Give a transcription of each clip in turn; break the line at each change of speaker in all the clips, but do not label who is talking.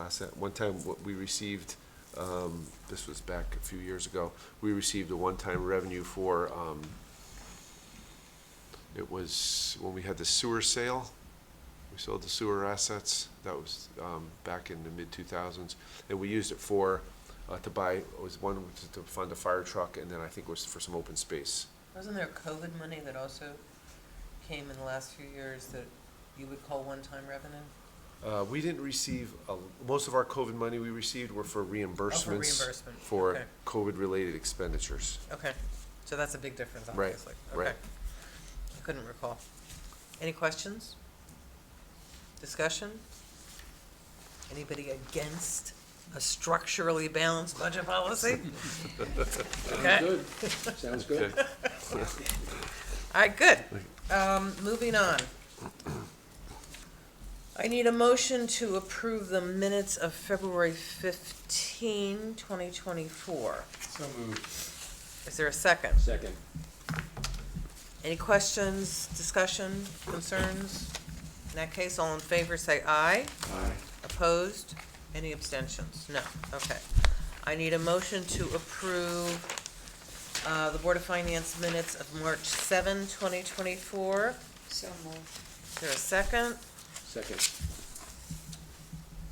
last, that- one time, what we received, um, this was back a few years ago, we received a one-time revenue for, um, it was when we had the sewer sale, we sold the sewer assets, that was, um, back in the mid-two-thousands, and we used it for, uh, to buy, it was one, was to fund a fire truck, and then I think it was for some open space.
Wasn't there COVID money that also came in the last few years that you would call one-time revenue?
Uh, we didn't receive, a- most of our COVID money we received were for reimbursements.
Oh, reimbursement,
For
okay.
COVID-related expenditures.
Okay, so that's a big difference,
Right,
obviously.
right.
Okay. I couldn't recall. Any questions? Discussion? Anybody against a structurally balanced budget policy? Okay.
Good, sounds good.
Okay.
All right, good. Um, moving on. I need a motion to approve the minutes of February 15, 2024.
So moved.
Is there a second?
Second.
Any questions, discussion, concerns? In that case, all in favor, say aye.
Aye.
Opposed? Any abstentions? No, okay. I need a motion to approve uh, the Board of Finance minutes of March 7, 2024.
So moved.
Is there a second?
Second.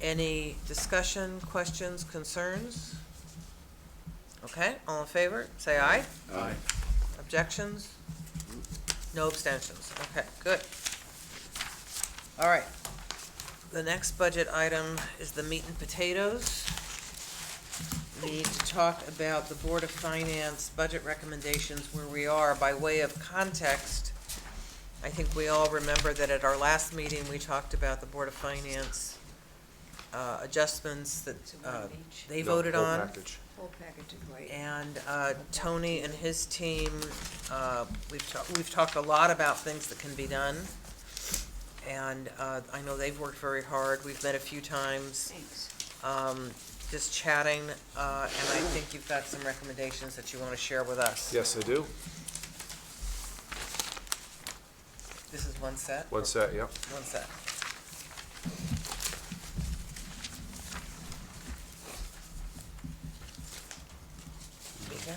Any discussion, questions, concerns? Okay, all in favor, say aye.
Aye.
Objections? No abstentions. Okay, good. All right. The next budget item is the meat and potatoes. We need to talk about the Board of Finance budget recommendations where we are by way of context. I think we all remember that at our last meeting, we talked about the Board of Finance uh, adjustments that
To
uh,
one each.
they
No,
voted
whole
on.
package.
Whole package of white.
And uh, Tony and his team, uh, we've talked, we've talked a lot about things that can be done. And uh, I know they've worked very hard. We've met a few times,
Thanks.
um, just chatting. uh, And I think you've got some recommendations that you want to share with us.
Yes, I do.
This is one set?
One set, yeah.
One set. Mika?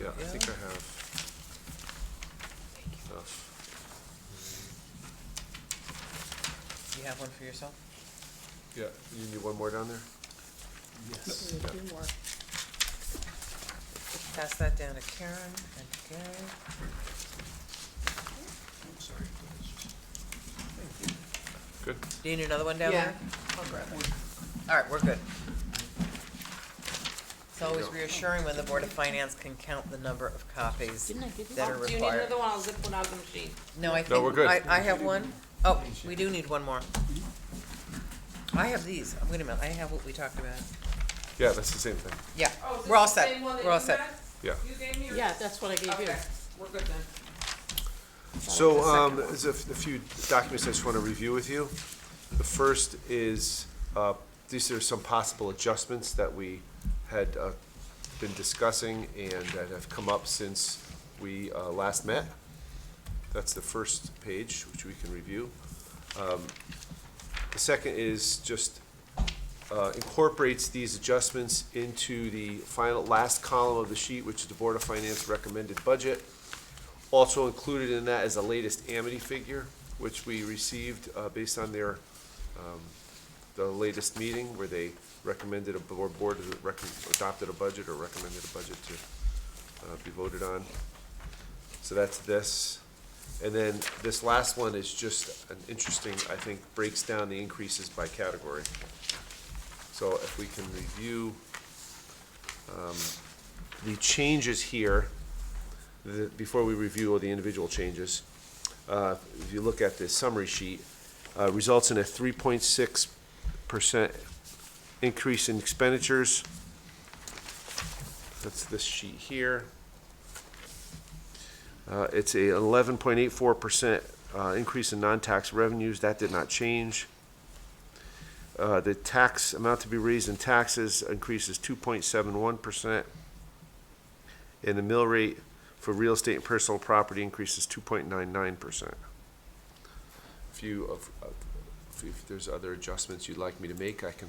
Yeah, I think
Yeah.
I have stuff.
You have one for yourself?
Yeah, you need one more down there?
Yes.
Yeah.
Two more.
Pass that down to Karen and to Gary.
Good.
Do you need another one down there?
I'll grab it.
All right, we're good. It's
you
always
go.
reassuring when the Board of Finance can count the number of copies
Didn't I give you
that
one?
are
Oh, Do you need
required.
another one? I'll zip one out of the machine.
No, I think.
we're good.
I, I have one. Oh, we do need one more. I have these. Wait a minute, I have what we talked about.
Yeah, that's the same thing.
Yeah,
Oh, is
we're all
this the
set.
same one that
We're all
you
set.
had?
Yeah.
You gave me? or-
Yeah, that's what I gave you.
Okay, we're good then.
So, um, there's a f- a few documents I just want to review with you. The first is, uh, these are some possible adjustments that we had, uh, been discussing and that have come up since we, uh, last met. That's the first page, which we can review. Um, The second is just, uh, incorporates these adjustments into the final, last column of the sheet, which is the Board of Finance recommended budget. Also included in that is the latest Amity figure, which we received uh, based on their, um, the latest meeting where they recommended a board, board to recom- adopted a budget or recommended a budget to uh, be voted on. So that's this. And then this last one is just an interesting, I think, breaks down the increases by category. So if we can review um, the changes here the, before we review all the individual changes, uh, if you look at the summary sheet, uh, results in a three point six percent increase in expenditures. That's this sheet here. Uh, it's a eleven point eight four percent, uh, increase in non-tax revenues, that did not change. Uh, the tax, amount to be raised in taxes increases two point seven one percent. And the mill rate for real estate and personal property increases two point nine nine percent. If you, of- of- if if, if there's other adjustments you'd like me to make, I can